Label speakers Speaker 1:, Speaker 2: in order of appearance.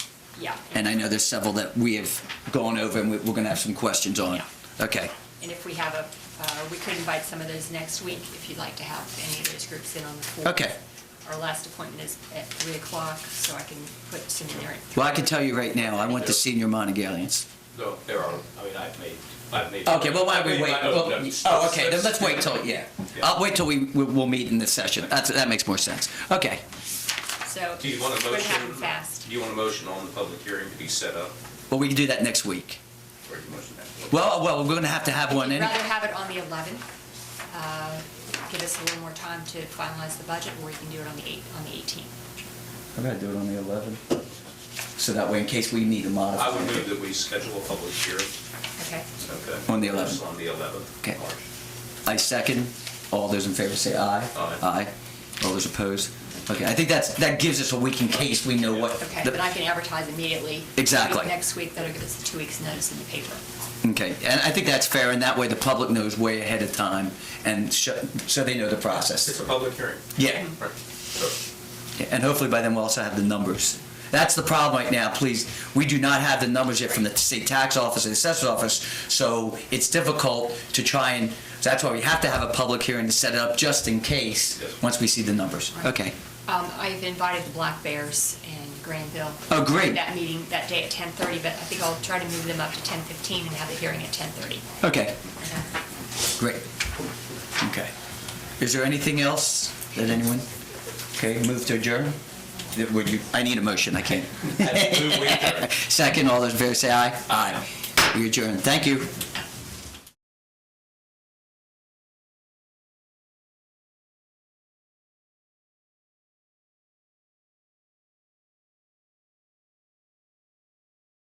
Speaker 1: Yeah.
Speaker 2: And I know there's several that we have gone over and we- we're going to have some questions on.
Speaker 1: Yeah.
Speaker 2: Okay,
Speaker 1: And if we have a, uh, we could invite some of those next week if you'd like to have any of those groups in on the fourth.
Speaker 2: Okay.
Speaker 1: Our last appointment is at three o'clock, so I can put some in there. at
Speaker 2: well, I can tell you right now, I want the senior Montegalians.
Speaker 3: No, there are, I mean, I've made, I've made.
Speaker 2: Okay, well, why don't we
Speaker 3: I've
Speaker 2: wait?
Speaker 3: made my own
Speaker 2: Well,
Speaker 3: notes.
Speaker 2: Oh, okay, then let's wait till, yeah.
Speaker 3: Yeah.
Speaker 2: I'll wait till we, we- we'll meet in this session. That's, that makes more sense. Okay,
Speaker 1: So.
Speaker 3: Do you want a
Speaker 1: We're gonna have
Speaker 3: motion?
Speaker 1: them fast.
Speaker 3: Do you want a motion on the public hearing to be set up?
Speaker 2: well, we can do that next week.
Speaker 3: Or you motion that?
Speaker 2: Well, oh, well, we're going to have to have one
Speaker 1: I'd
Speaker 2: in.
Speaker 1: rather have it on the eleventh. uh, Give us a little more time to finalize the budget, or you can do it on the eight, on the eighteenth.
Speaker 2: I'm going to do it on the 11th. So that way, in case we need to modify.
Speaker 3: I would move that we schedule a public hearing,
Speaker 1: Okay?
Speaker 3: okay?
Speaker 2: On the 11th.
Speaker 3: On the 11th.
Speaker 2: Okay.
Speaker 3: March.
Speaker 2: I second. All those in favor say aye.
Speaker 3: Aye.
Speaker 2: All those opposed? Okay, I think that's, that gives us a week in case we know what.
Speaker 1: Okay,
Speaker 2: the-
Speaker 1: but I can advertise immediately.
Speaker 2: Exactly.
Speaker 1: Next week, that'll give us two weeks' notice in the paper.
Speaker 2: Okay, and I think that's fair, and that way the public knows way ahead of time, and sh- so they know the
Speaker 3: It's
Speaker 2: process.
Speaker 3: a public hearing.
Speaker 2: Yeah,
Speaker 3: Right. So,
Speaker 2: and hopefully by then we'll also have the numbers. That's the problem right now, please, we do not have the numbers yet from the state tax office and assessor's office, so it's difficult to try and, so that's why we have to have a public hearing to set it up just in case,
Speaker 3: Yes.
Speaker 2: once we see the numbers. Okay.
Speaker 1: Um, I've invited the Black Bears and Granville.
Speaker 2: Oh, great.
Speaker 1: to That meeting, that day at 10:30, but I think I'll try to move them up to 10:15 and have the hearing at 10:30.
Speaker 2: Okay, great. Okay. Is there anything else that anyone? Okay, move to adjourn? That- Would you, I need a motion, I can't.
Speaker 3: I move we adjourn.
Speaker 2: Second, all those in favor say aye. Aye. We adjourn. Thank you.